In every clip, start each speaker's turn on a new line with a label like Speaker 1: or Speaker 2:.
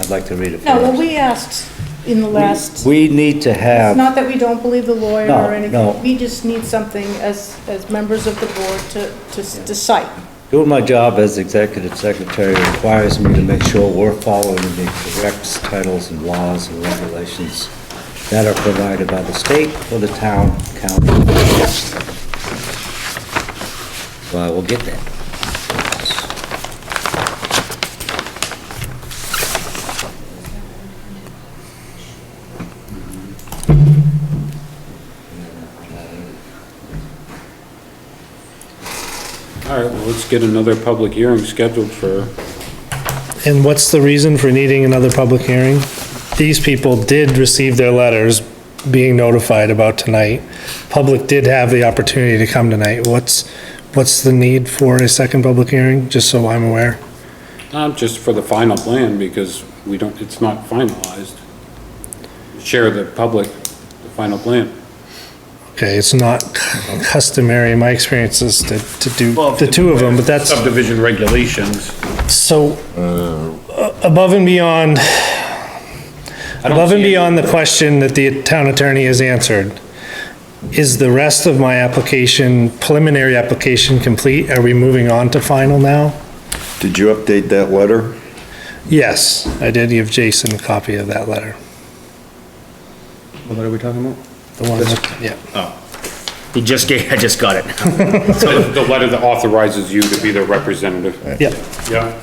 Speaker 1: I'd like to read it first.
Speaker 2: No, well, we asked in the last, it's
Speaker 1: We need to have.
Speaker 2: not that we don't believe the lawyer
Speaker 1: No, no.
Speaker 2: or anything. We just need something as, as members of the board to, to s- to cite.
Speaker 1: Doing my job as executive secretary requires me to make sure we're following the correct titles and laws and regulations that are provided by the state or the town county. So I will get that.
Speaker 3: All right, well, let's get another public hearing scheduled for,
Speaker 4: And what's the reason for needing another public hearing? These people did receive their letters being notified about tonight. Public did have the opportunity to come tonight. What's, what's the need for a second public hearing, just so I'm aware?
Speaker 3: not just for the final plan, because we don't, it's not finalized. Share the public, the final plan.
Speaker 4: Okay, it's not customary in my experiences to, to do
Speaker 3: Well,
Speaker 4: the two of them, but that's.
Speaker 3: Subdivision regulations.
Speaker 4: So, uh, above and beyond, above and
Speaker 3: see any-
Speaker 4: beyond the question that the town attorney has answered, is the rest of my application, preliminary application complete? Are we moving on to final now?
Speaker 5: Did you update that letter?
Speaker 4: Yes, I did give Jason a copy of that letter.
Speaker 3: What are we talking about?
Speaker 4: The one, that- yeah.
Speaker 6: He just gave, I just got it.
Speaker 3: The the letter that authorizes you to be the representative.
Speaker 4: Yeah.
Speaker 3: Yeah.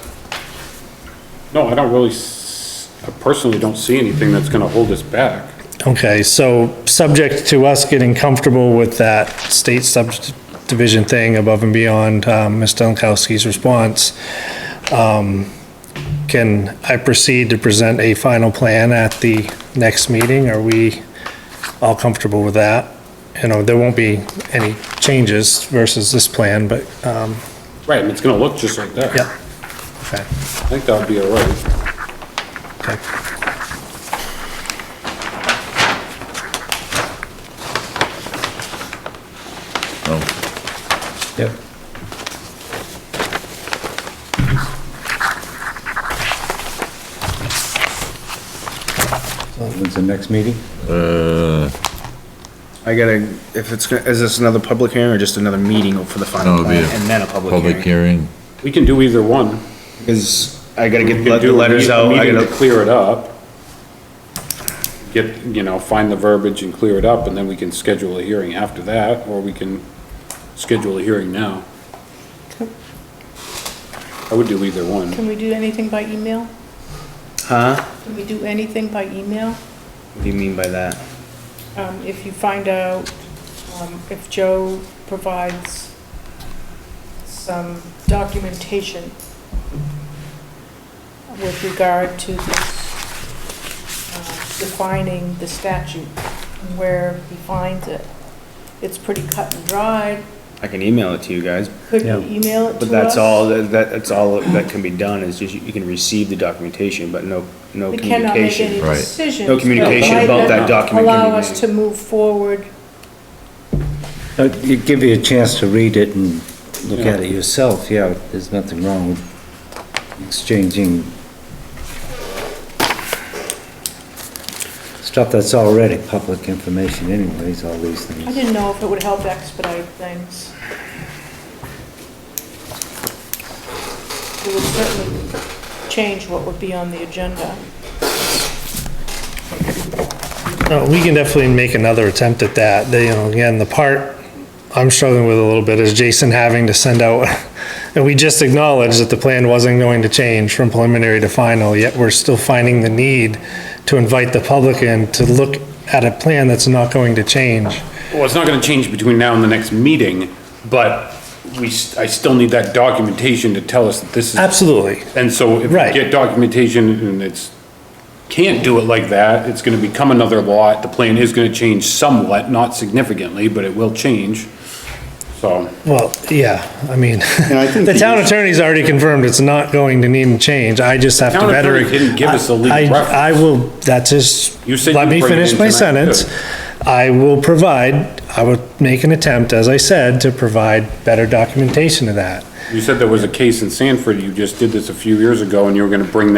Speaker 3: No, I don't really, s- I personally don't see anything that's gonna hold us back.
Speaker 4: Okay, so subject to us getting comfortable with that state subdivision thing above and beyond um, Ms. Dunkowski's response, um, can I proceed to present a final plan at the next meeting? Are we all comfortable with that? You know, there won't be any changes versus this plan, but, um,
Speaker 3: Right, and it's gonna look just like that.
Speaker 4: yeah. Okay,
Speaker 3: I think that would be all right.
Speaker 4: okay.
Speaker 1: Yep. When's the next meeting?
Speaker 7: I gotta, if it's, gonna- is this another public hearing or just another meeting for the
Speaker 8: No,
Speaker 7: final
Speaker 8: it'll be
Speaker 7: plan
Speaker 8: a
Speaker 7: and then a public
Speaker 8: Public
Speaker 7: hearing?
Speaker 8: hearing.
Speaker 3: We can do either one.
Speaker 7: Cause I gotta
Speaker 3: We
Speaker 7: get
Speaker 3: can
Speaker 7: let-
Speaker 3: do
Speaker 7: the
Speaker 3: a
Speaker 7: letters
Speaker 3: meet-
Speaker 7: out, I
Speaker 3: Meeting to
Speaker 7: gotta,
Speaker 3: clear it up. Get, you know, find the verbiage and clear it up, and then we can schedule a hearing after that, or we can schedule a hearing now. I would do either one.
Speaker 2: Can we do anything by email?
Speaker 7: huh?
Speaker 2: Can we do anything by email?
Speaker 7: What do you mean by that?
Speaker 2: Um, if you find out, um, if Joe provides some documentation with regard to this, uh, defining the statute, and where he finds it. It's pretty cut and dried.
Speaker 7: I can email it to you guys,
Speaker 2: Could you
Speaker 1: Yeah.
Speaker 2: email it to us?
Speaker 7: but that's all, that, that's all that can be done is just, you- you can receive the documentation, but no, no
Speaker 2: We cannot make any
Speaker 7: communication.
Speaker 8: Right.
Speaker 2: decisions.
Speaker 7: No communication
Speaker 2: but might
Speaker 7: about that document can be
Speaker 2: Allow us
Speaker 7: made.
Speaker 2: to move forward.
Speaker 1: Uh, you Give you a chance to read it and look at it yourself, yeah, there's nothing wrong with exchanging stuff that's already public information anyways, all these
Speaker 2: I
Speaker 1: things.
Speaker 2: didn't know if it would help expedite things. It would certainly change what would be on the agenda.
Speaker 4: No, we can definitely make another attempt at that. The, you know, again, the part I'm struggling with a little bit is Jason having to send out, and we just acknowledged that the plan wasn't going to change from preliminary to final, yet we're still finding the need to invite the public in to look at a plan that's not going to change.
Speaker 3: Well, it's not gonna change between now and the next meeting, but we, s- I still need that documentation to tell us that this is.
Speaker 4: Absolutely.
Speaker 3: And so if we
Speaker 4: Right.
Speaker 3: get documentation and it's, can't do it like that, it's gonna become another lot. The plan is gonna change somewhat, not significantly, but it will change. So.
Speaker 4: Well, yeah, I mean,
Speaker 5: I think
Speaker 4: the town attorney's already confirmed it's not going to need to change. I just have to
Speaker 3: Town
Speaker 4: better.
Speaker 3: attorney didn't give us a legal
Speaker 4: I-
Speaker 3: reference.
Speaker 4: I will, that's just,
Speaker 3: You said
Speaker 4: let
Speaker 3: you'd
Speaker 4: me
Speaker 3: bring it
Speaker 4: finish
Speaker 3: in
Speaker 4: my
Speaker 3: tonight,
Speaker 4: sentence. I will provide, I would make an attempt, as I said, to provide better documentation of that.
Speaker 3: You said there was a case in Sanford, you just did this a few years ago, and you were gonna bring that